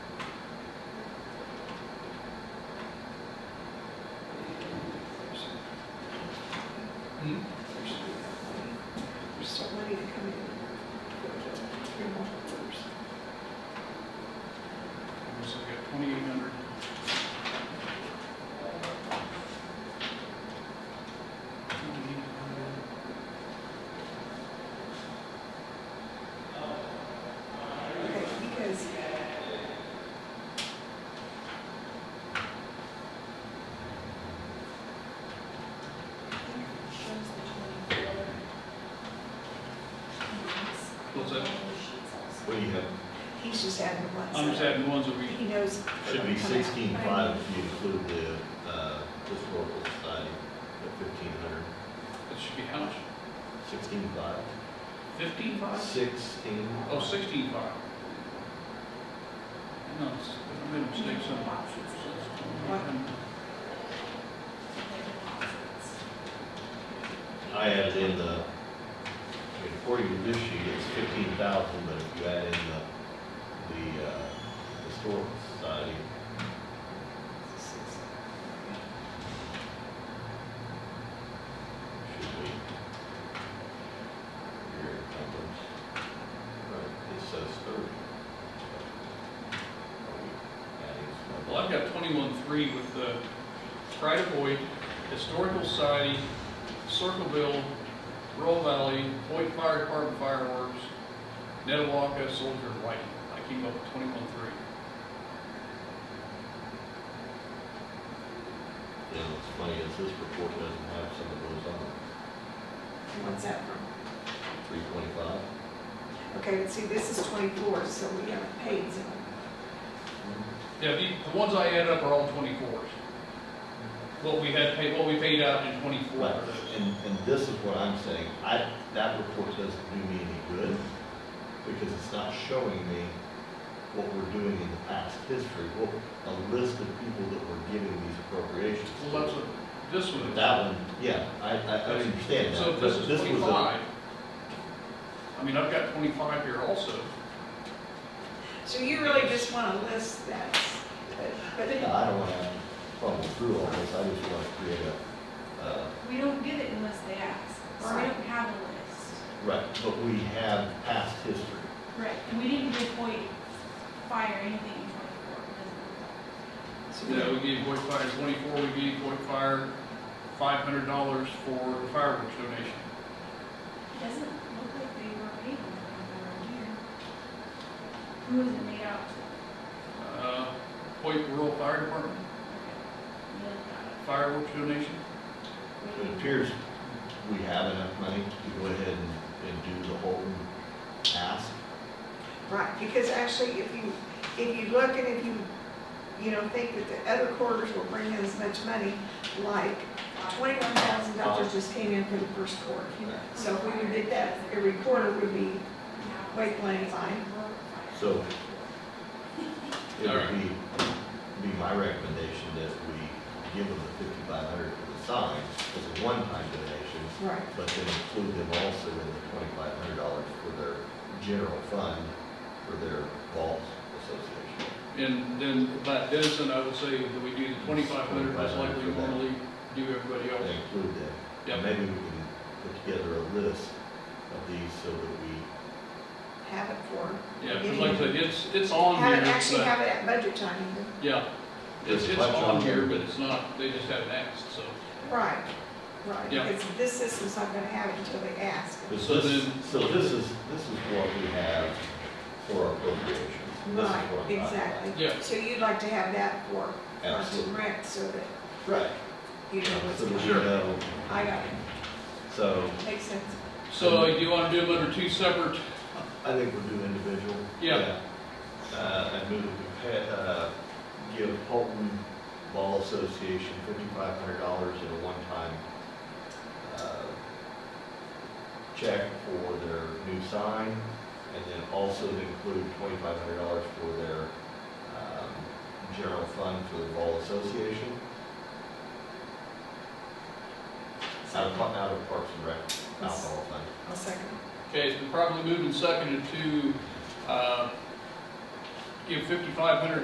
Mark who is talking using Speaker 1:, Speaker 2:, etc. Speaker 1: So we got twenty-eight hundred.
Speaker 2: Okay, because.
Speaker 3: Shows the twenty-four.
Speaker 1: What's that?
Speaker 4: What do you have?
Speaker 2: He's just adding one.
Speaker 1: I'm just adding ones that we,
Speaker 2: He knows.
Speaker 4: Should be
Speaker 2: Come on.
Speaker 4: sixteen five if you include the, uh, historical society, the fifteen hundred.
Speaker 1: that should be how much?
Speaker 4: Sixteen five.
Speaker 1: Fifteen five?
Speaker 4: Sixteen.
Speaker 1: Oh, sixteen five. No, it's- I made a mistake somewhere. So it's 2800.
Speaker 4: I added in the, I mean, according to this sheet, it's fifteen thousand, but if you add in the, the, uh, historical society, should be. Your numbers. Right, it says thirty. Are we adding some?
Speaker 1: Well, I've got twenty-one three with the Pride of Hoyt, Historical Society, Circleville, Rural Valley, Hoyt Fire Department Fireworks, Netawaka, Soldier of Light. I came up with twenty-one three.
Speaker 4: You know, it's funny, is this report doesn't have some of those on it,
Speaker 2: What's that from?
Speaker 4: three twenty-five?
Speaker 2: Okay, let's see, this is twenty-four, so we haven't paid some.
Speaker 1: Yeah, the, the ones I added up are all twenty-fours. What we had paid, what we paid out in twenty-four.
Speaker 4: Right,
Speaker 1: for those.
Speaker 4: and, and this is what I'm saying, I, that report doesn't do me any good, because it's not showing me what we're doing in the past history, what, a list of people that were giving these appropriations.
Speaker 1: Well, that's what, this
Speaker 4: But
Speaker 1: one.
Speaker 4: That one, yeah, I, I, I understand
Speaker 1: So
Speaker 4: that,
Speaker 1: if this
Speaker 4: but
Speaker 1: is
Speaker 4: this was
Speaker 1: twenty-five.
Speaker 4: a,
Speaker 1: I mean, I've got twenty-five here also.
Speaker 2: So you really just want to list that, but, but
Speaker 4: I don't wanna fumble through all this, I just wanna create a, uh,
Speaker 3: We don't get it unless they ask, so we
Speaker 2: Right.
Speaker 3: don't have a list.
Speaker 4: right, but we have past history.
Speaker 3: Right. And we didn't give Hoyt fire anything in twenty-four, because
Speaker 2: so
Speaker 1: Yeah, we gave Boyd Fire twenty-four, we gave Boyd Fire five hundred dollars for the fireworks donation.
Speaker 3: it doesn't look like they were paid in twenty-four on here. Who was it made out to?
Speaker 1: Uh, Boyd Rural Fire Department
Speaker 3: Okay. Look at it.
Speaker 1: fireworks donation.
Speaker 4: It appears we have enough money to go ahead and, and do the Holton ask.
Speaker 2: Right, because actually, if you, if you look and if you, you know, think that the other quarters will bring in as much money, like twenty-one thousand dollars just came in for the first quarter. So if we did that, every quarter would be, Wait, Blaine, fine.
Speaker 4: So- It
Speaker 1: All
Speaker 4: would
Speaker 1: right.
Speaker 4: be, be my recommendation that we give them the fifty-five hundred for the signs as a one-time donation,
Speaker 2: right,
Speaker 4: but then include them also in the twenty-five hundred dollars for their general fund for their vault association.
Speaker 1: And then by Denison, I would say that we do the twenty-five hundred, that's like we normally do everybody
Speaker 4: They
Speaker 1: else.
Speaker 4: Include them. And
Speaker 1: Yep.
Speaker 4: Maybe we can put together a list of these so that
Speaker 2: have it for,
Speaker 1: Yeah, 'cause like I said, it's, it's on
Speaker 2: have it,
Speaker 1: here,
Speaker 2: actually
Speaker 1: but,
Speaker 2: have it at budget time even.
Speaker 1: yeah. It's,
Speaker 4: Just
Speaker 1: it's
Speaker 4: budget
Speaker 1: on
Speaker 4: on
Speaker 1: here,
Speaker 4: there.
Speaker 1: but it's not, they just haven't asked, so.
Speaker 2: Right, right,
Speaker 1: Yeah.
Speaker 2: because this system's not gonna have it until they ask.
Speaker 4: we.
Speaker 1: So
Speaker 4: this-
Speaker 1: then-
Speaker 4: So this is, this is what we have for our appropriations. This is
Speaker 2: Right,
Speaker 4: what I'm talking about.
Speaker 2: exactly.
Speaker 1: Yeah.
Speaker 2: So you'd like to have that for, for
Speaker 4: Absolutely.
Speaker 2: rent, so that
Speaker 4: Right.
Speaker 2: you know what's
Speaker 4: So that
Speaker 2: going
Speaker 4: we
Speaker 1: Sure.
Speaker 4: know.
Speaker 2: I got it,
Speaker 4: So
Speaker 2: makes sense.
Speaker 1: So do you want to do them under two separate?
Speaker 4: I think we'll do individual.
Speaker 1: Yeah.
Speaker 4: Uh, I move we pay, uh, give Holton Ball Association fifty-five hundred dollars in a one-time, uh, check for their new sign, and then also to include twenty-five hundred dollars for their, um, general fund for the Ball Association. Out of, out of Parks and Rec, alcohol fund.
Speaker 2: I'll second.
Speaker 1: Okay, it's been properly moved and seconded to, uh, give fifty-five hundred